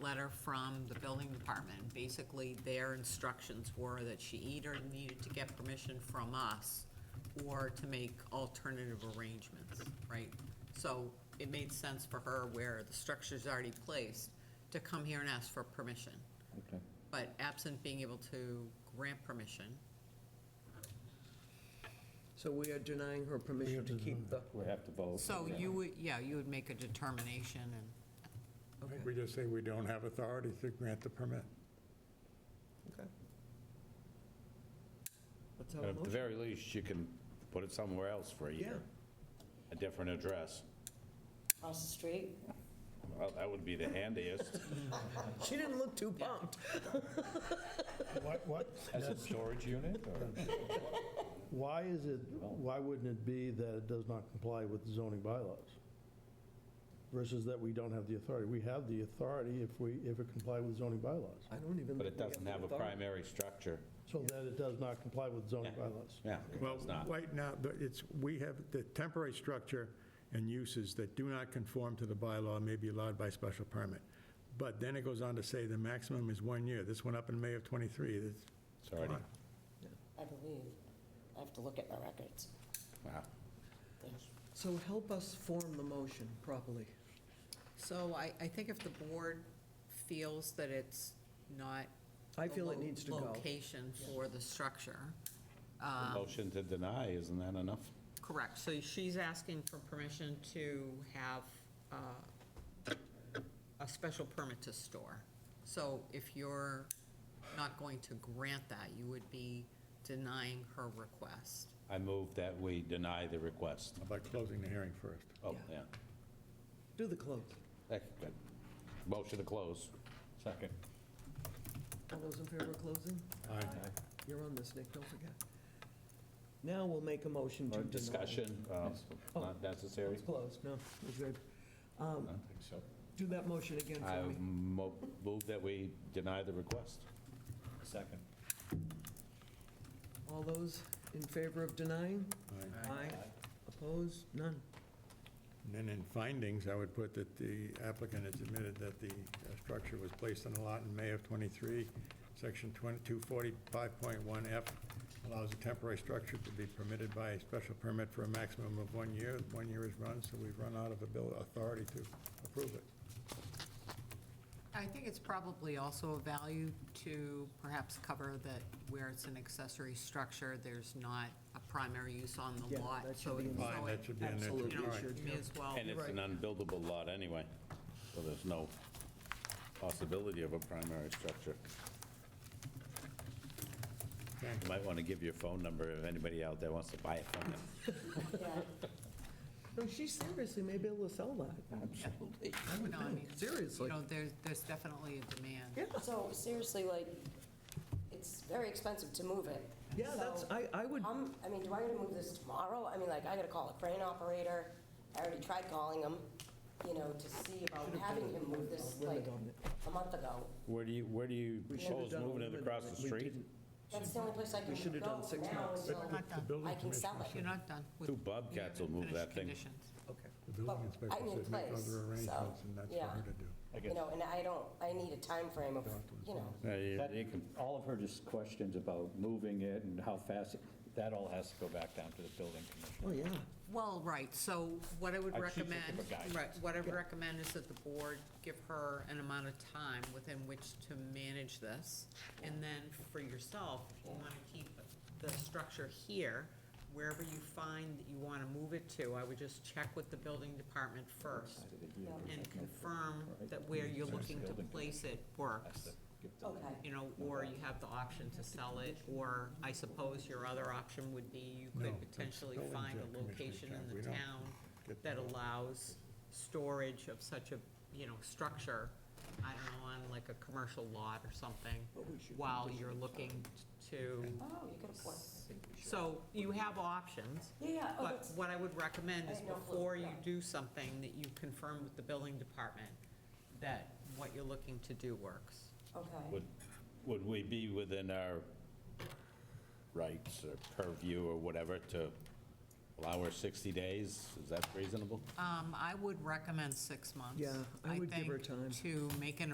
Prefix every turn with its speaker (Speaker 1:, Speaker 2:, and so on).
Speaker 1: letter from the building department. Basically, their instructions were that she either needed to get permission from us or to make alternative arrangements, right? So it made sense for her where the structure's already placed to come here and ask for permission.
Speaker 2: Okay.
Speaker 1: But absent being able to grant permission,
Speaker 3: So we are denying her permission to keep the,
Speaker 2: We have to vote.
Speaker 1: so you would, yeah, you would make a determination and,
Speaker 4: I think we just say we don't have authority to grant the permit.
Speaker 3: okay. Let's have a
Speaker 2: At the
Speaker 3: motion.
Speaker 2: very least, you can put it somewhere else for a year, a different address.
Speaker 5: Across the street?
Speaker 2: Well, That would be the handiest
Speaker 3: She didn't look too pumped.
Speaker 6: What, what,
Speaker 2: as a storage unit or?
Speaker 6: why is it, why wouldn't it be that it does not comply with the zoning bylaws? Versus that we don't have the authority? We have the authority if we, if it comply with zoning bylaws.
Speaker 3: I don't even.
Speaker 2: But it
Speaker 3: think we
Speaker 2: doesn't have a
Speaker 3: the authority.
Speaker 2: primary structure.
Speaker 6: So that it does not comply with zoning bylaws.
Speaker 2: Yeah, it
Speaker 4: Well,
Speaker 2: does not.
Speaker 4: right now, but it's, we have the temporary structure and uses that do not conform to the bylaw may be allowed by special permit. But then it goes on to say the maximum is one year. This went up in May of '23. It's
Speaker 2: It's already,
Speaker 5: I believe. I have to look at my records.
Speaker 2: wow.
Speaker 3: So help us form the motion properly.
Speaker 1: so I, I think if the board feels that it's not
Speaker 3: I feel it
Speaker 1: the lo-
Speaker 3: needs to go.
Speaker 1: Location for the structure. Uh,
Speaker 2: Motion to deny, isn't that enough?
Speaker 1: Correct, so she's asking for permission to have uh, a special permit to store. So if you're not going to grant that, you would be denying her request.
Speaker 2: I move that we deny the request.
Speaker 4: by closing the hearing first.
Speaker 2: Oh,
Speaker 3: Yeah.
Speaker 2: yeah.
Speaker 3: Do the close.
Speaker 2: That's good. Motion to close. Second.
Speaker 3: All those in favor of closing?
Speaker 4: Aye.
Speaker 3: You're on this, Nick, don't forget. Now we'll make a motion to
Speaker 2: Or
Speaker 3: deny. Oh,
Speaker 2: discussion, uh, not necessary.
Speaker 3: It's closed, no, we're good. Um,
Speaker 2: I don't think so.
Speaker 3: Do that motion again
Speaker 1: Oh.
Speaker 2: I
Speaker 3: for me.
Speaker 2: mo- move that we deny the request. Second.
Speaker 3: All those in favor of denying?
Speaker 4: Aye.
Speaker 3: Aye. Opposed? None.
Speaker 4: And then in findings, I would put that the applicant has admitted that the uh, structure was placed on a lot in May of '23. Section 245.1F allows a temporary structure to be permitted by a special permit for a maximum of one year. One year is run, so we've run out of abil- authority to approve it.
Speaker 1: I think it's probably also of value to perhaps cover that where it's an accessory structure, there's not a primary use on the
Speaker 3: Yeah,
Speaker 1: lot.
Speaker 3: that should
Speaker 1: so
Speaker 3: be
Speaker 1: it-
Speaker 3: in
Speaker 1: so
Speaker 4: there. Fine, that
Speaker 1: it-
Speaker 4: should be in there, too.
Speaker 1: You know,
Speaker 4: All right.
Speaker 1: may as well.
Speaker 2: And it's an unbuildable lot anyway, so there's no possibility of a primary structure.
Speaker 4: Okay.
Speaker 2: You might want to give your phone number if anybody out there wants to buy it from you.
Speaker 5: Yeah.
Speaker 3: No, she seriously may be able to sell that. Absolutely.
Speaker 1: No, I mean,
Speaker 3: Seriously.
Speaker 1: You know, there's, there's definitely a demand.
Speaker 5: So seriously, like, it's very expensive to move it.
Speaker 3: Yeah, that's,
Speaker 5: So,
Speaker 3: I, I would,
Speaker 5: Um, I mean, do I gotta move this tomorrow? I mean, like, I gotta call a crane operator. I already tried calling him, you know, to see about having him move this, like, a month ago.
Speaker 2: Where do you, where do you
Speaker 3: we should have
Speaker 2: propose
Speaker 3: done. a
Speaker 2: moving it
Speaker 3: limited
Speaker 2: across the
Speaker 3: one. We
Speaker 2: street?
Speaker 3: didn't.
Speaker 5: That's the only place I can
Speaker 3: We
Speaker 5: go
Speaker 3: should've done six
Speaker 5: now
Speaker 3: months.
Speaker 5: until
Speaker 1: Not done.
Speaker 4: building
Speaker 5: I can sell
Speaker 4: commissioner-
Speaker 5: it.
Speaker 1: You're not done with.
Speaker 2: Two Bobcats will move that thing.
Speaker 1: Finished conditions.
Speaker 3: Okay.
Speaker 4: The building
Speaker 5: Well,
Speaker 4: inspector
Speaker 5: I'm in
Speaker 4: says make
Speaker 5: place,
Speaker 4: other arrangements,
Speaker 5: so,
Speaker 4: and that's for her
Speaker 5: yeah.
Speaker 4: to do.
Speaker 5: You know, and I don't, I need a time frame of, you know,
Speaker 2: Uh, you- you can-
Speaker 7: That- All of her just questions about moving it and how fast, that all has to go back down to the building commissioner.
Speaker 3: Oh, yeah.
Speaker 1: Well, right, so what I would
Speaker 7: I should think of
Speaker 1: recommend,
Speaker 7: a guide.
Speaker 1: right, what I would recommend is that the board give her an amount of time within which to manage this. And then for yourself, if you want to keep the structure here, wherever you find that you want to move it to, I would just check with the building department first and confirm that where you're looking to place it works.
Speaker 5: okay.
Speaker 1: You know, or you have the option to sell it, or I suppose your other option would be you
Speaker 4: No,
Speaker 1: could
Speaker 4: that's
Speaker 1: potentially
Speaker 4: building
Speaker 1: find a
Speaker 4: job, commissioner
Speaker 1: location
Speaker 4: job.
Speaker 1: in
Speaker 4: We
Speaker 1: the
Speaker 4: don't
Speaker 1: town
Speaker 4: get
Speaker 1: that
Speaker 4: that.
Speaker 1: allows storage of such a, you know, structure, I don't know, on like a commercial lot or something, while you're looking to,
Speaker 5: Oh, you could afford it.
Speaker 1: so you have options.
Speaker 5: Yeah, yeah, oh,
Speaker 1: But
Speaker 5: that's-
Speaker 1: what I would recommend
Speaker 5: I
Speaker 1: is
Speaker 5: had no clue,
Speaker 1: before you
Speaker 5: yeah.
Speaker 1: do something, that you confirm with the building department that what you're looking to do works.
Speaker 5: Okay.
Speaker 2: Would, would we be within our rights or purview or whatever to allow her 60 days? Is that reasonable?
Speaker 1: Um, I would recommend six months.
Speaker 3: Yeah, I would give her
Speaker 1: think,
Speaker 3: time.
Speaker 1: To make an